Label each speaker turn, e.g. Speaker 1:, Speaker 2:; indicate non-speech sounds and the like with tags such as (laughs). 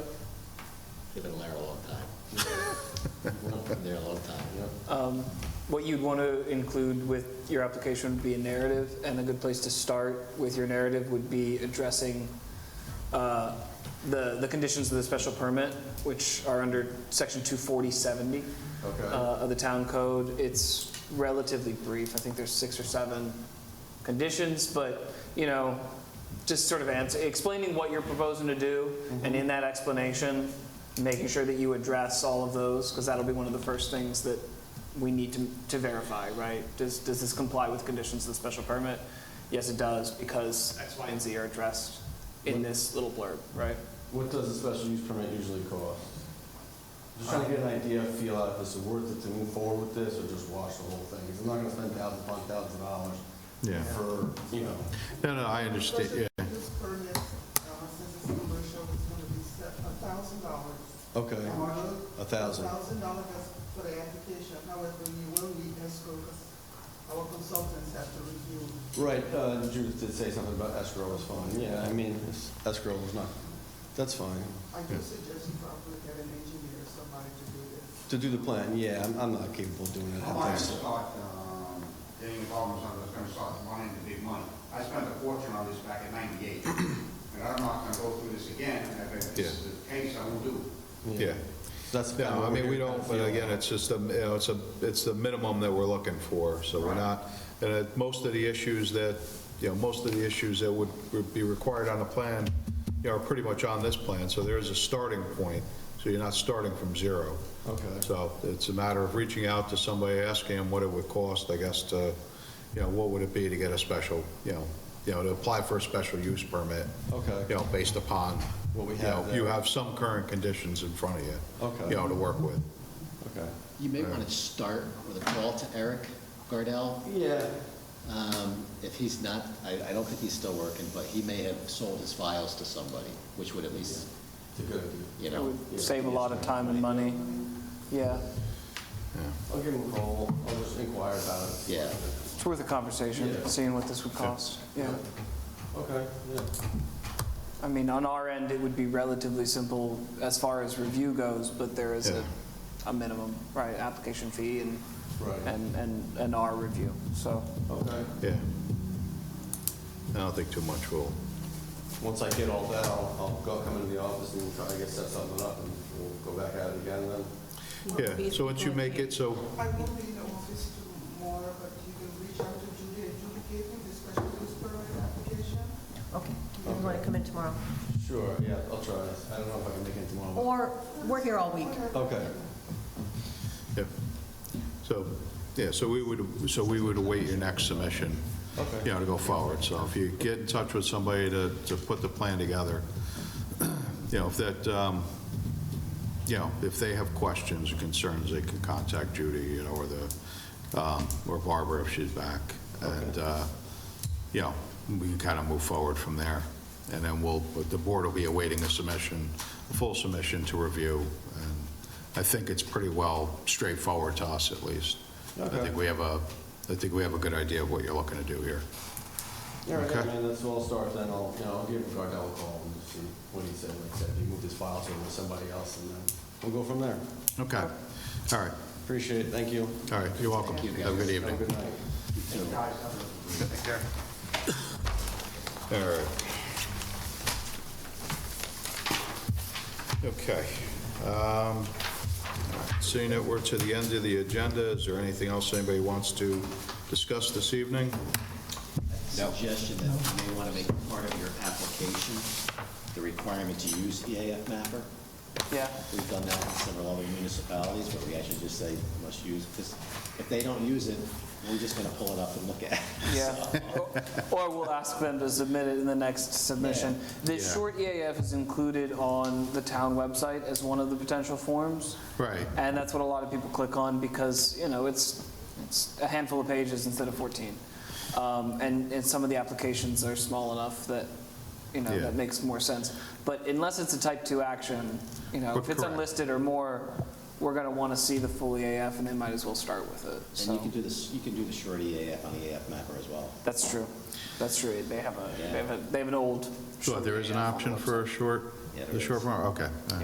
Speaker 1: They've been there a long time. Been there a long time, yeah.
Speaker 2: Um, What you'd want to include with your application would be a narrative, and a good place to start with your narrative would be addressing uh, the, the conditions of the special permit, which are under section 24070
Speaker 3: Okay.
Speaker 2: uh, of the town code. It's relatively brief, I think there's six or seven conditions, but, you know, just sort of answer, explaining what you're proposing to do, and in that explanation, making sure that you address all of those, because that'll be one of the first things that we need to, to verify, right? Does, does this comply with conditions of the special permit? Yes, it does, because X, Y, and Z are addressed in this little blurb, right?
Speaker 3: What does a special use permit usually cost? Just trying to get an idea, feel out if this is worth it to move forward with this or just wash the whole thing. 'Cause I'm not gonna spend thousands upon thousands of dollars
Speaker 4: Yeah.
Speaker 3: for, you know.
Speaker 4: No, no, I understand, yeah.
Speaker 5: This permit, uh, since it's commercial, it's gonna be set a thousand dollars.
Speaker 3: Okay. A thousand.
Speaker 5: thousand dollars for the application, however, you will need escrow, because our consultants have to review.
Speaker 3: Right, uh, Judith did say something about escrow was fine. Yeah, I mean, it's- escrow was not, that's fine.
Speaker 5: I do suggest you probably get an engineer, somebody to do this.
Speaker 3: To do the plan, yeah, I'm, I'm not capable of doing it.
Speaker 6: How much it cost, um, getting involved in something that's gonna start running into big money? I spent a fortune on this back in ninety-eight, and I'm not gonna go through this again, and if this is the case, I won't do it.
Speaker 4: Yeah.
Speaker 3: That's. kinda
Speaker 4: No, I
Speaker 3: what
Speaker 4: mean,
Speaker 3: we're
Speaker 4: we
Speaker 3: here
Speaker 4: don't,
Speaker 3: to
Speaker 4: but
Speaker 3: feel
Speaker 4: again,
Speaker 3: out.
Speaker 4: it's just, a- you know, it's a, it's the minimum that we're looking for, so we're
Speaker 6: Right.
Speaker 4: not, and it- most of the issues that, you know, most of the issues that would, would be required on the plan, you know, are pretty much on this plan, so there is a starting point, so you're not starting from zero.
Speaker 3: Okay.
Speaker 4: So it's a matter of reaching out to somebody, asking them what it would cost, I guess, to, you know, what would it be to get a special, you know, you know, to apply for a special use permit.
Speaker 3: Okay.
Speaker 4: You know, based upon.
Speaker 3: What we
Speaker 4: you
Speaker 3: have
Speaker 4: know,
Speaker 3: there.
Speaker 4: You have some current conditions in front of you.
Speaker 3: Okay.
Speaker 4: You know, to work with.
Speaker 3: Okay.
Speaker 1: You may want to start with a call to Eric Gardell.
Speaker 3: Yeah.
Speaker 1: Um, If he's not, I, I don't think he's still working, but he may have sold his files to somebody, which would at least,
Speaker 3: It's a good idea.
Speaker 1: you
Speaker 2: It
Speaker 1: know,
Speaker 2: would save a lot of time and money, yeah.
Speaker 3: I'll give him a call. I'll just inquire about it.
Speaker 1: Yeah.
Speaker 2: It's worth a conversation,
Speaker 3: Yeah.
Speaker 2: seeing what this would cost, yeah.
Speaker 3: Okay, yeah.
Speaker 2: I mean, on our end, it would be relatively simple as far as review goes, but there is a, a minimum, right, application fee and,
Speaker 3: Right.
Speaker 2: and, and, and our review, so.
Speaker 3: Okay.
Speaker 4: Yeah. I don't think too much will,
Speaker 3: Once I get all that, I'll, I'll go come into the office and try to get set something up and we'll go back at it again then.
Speaker 4: yeah, so once you make it, so,
Speaker 5: I will be in the office tomorrow, but you can reach out to Judy and Judy gave me the special use permit application.
Speaker 7: Okay, if you want to come in tomorrow.
Speaker 3: Sure, yeah, I'll try. I don't know if I can make it tomorrow.
Speaker 7: Or, we're here all week.
Speaker 3: Okay,
Speaker 4: yeah. So, yeah, so we would, so we would await your next submission.
Speaker 3: Okay.
Speaker 4: You know, to go forward. So if you get in touch with somebody to, to put the plan together, (clears throat) you know, if that, um, you know, if they have questions or concerns, they can contact Judy, you know, or the, um, or Barbara if she's back. And, uh, you know, we can kind of move forward from there. And then we'll, but the board will be awaiting a submission, a full submission to review. And I think it's pretty well straightforward to us at least. I
Speaker 3: Okay.
Speaker 4: think we have a, I think we have a good idea of what you're looking to do here.
Speaker 3: all right,
Speaker 4: Okay.
Speaker 3: man, that's where I'll start then. I'll, you know, I'll give Gardell a call and see what he said. Like I said, he moved his files over to somebody else and then we'll go from there.
Speaker 4: Okay, all right,
Speaker 3: Appreciate it, thank you.
Speaker 4: all right, you're welcome.
Speaker 1: Thank you,
Speaker 4: Have a
Speaker 1: guys.
Speaker 4: good
Speaker 3: Have a
Speaker 4: evening.
Speaker 3: good night.
Speaker 1: so-
Speaker 4: All right. Okay. um, Seeing that we're to the end of the agenda, is there anything else anybody wants to discuss this evening?
Speaker 1: suggestion that you may want to make part of your application, the requirement to use EAF mapper.
Speaker 2: Yeah,
Speaker 1: We've done that in several other municipalities, but we actually just say you must use, because if they don't use it, we're just going to pull it up and look at it.
Speaker 2: (laughs) yeah. Or we'll ask them to submit it in the next submission. The
Speaker 4: Yeah.
Speaker 2: short EAF is included on the town website as one of the potential forms.
Speaker 4: Right.
Speaker 2: And that's what a lot of people click on because, you know, it's, it's a handful of pages instead of 14. Um, And, and some of the applications are small enough that, you know,
Speaker 4: Yeah.
Speaker 2: that makes more sense. But unless it's a type 2 action, you know, if it's
Speaker 4: Correct.
Speaker 2: unlisted or more, we're going to want to see the full EAF and they might as well start with it.
Speaker 1: And you
Speaker 2: So,
Speaker 1: can do this, you can do the short EAF on EAF mapper as well.
Speaker 2: that's true. That's true. They have a, they have a, they have an old.
Speaker 4: So there is an
Speaker 2: EAF on the
Speaker 4: option for a short,
Speaker 1: Yeah, there
Speaker 4: the short
Speaker 1: is.
Speaker 4: form, okay. all right.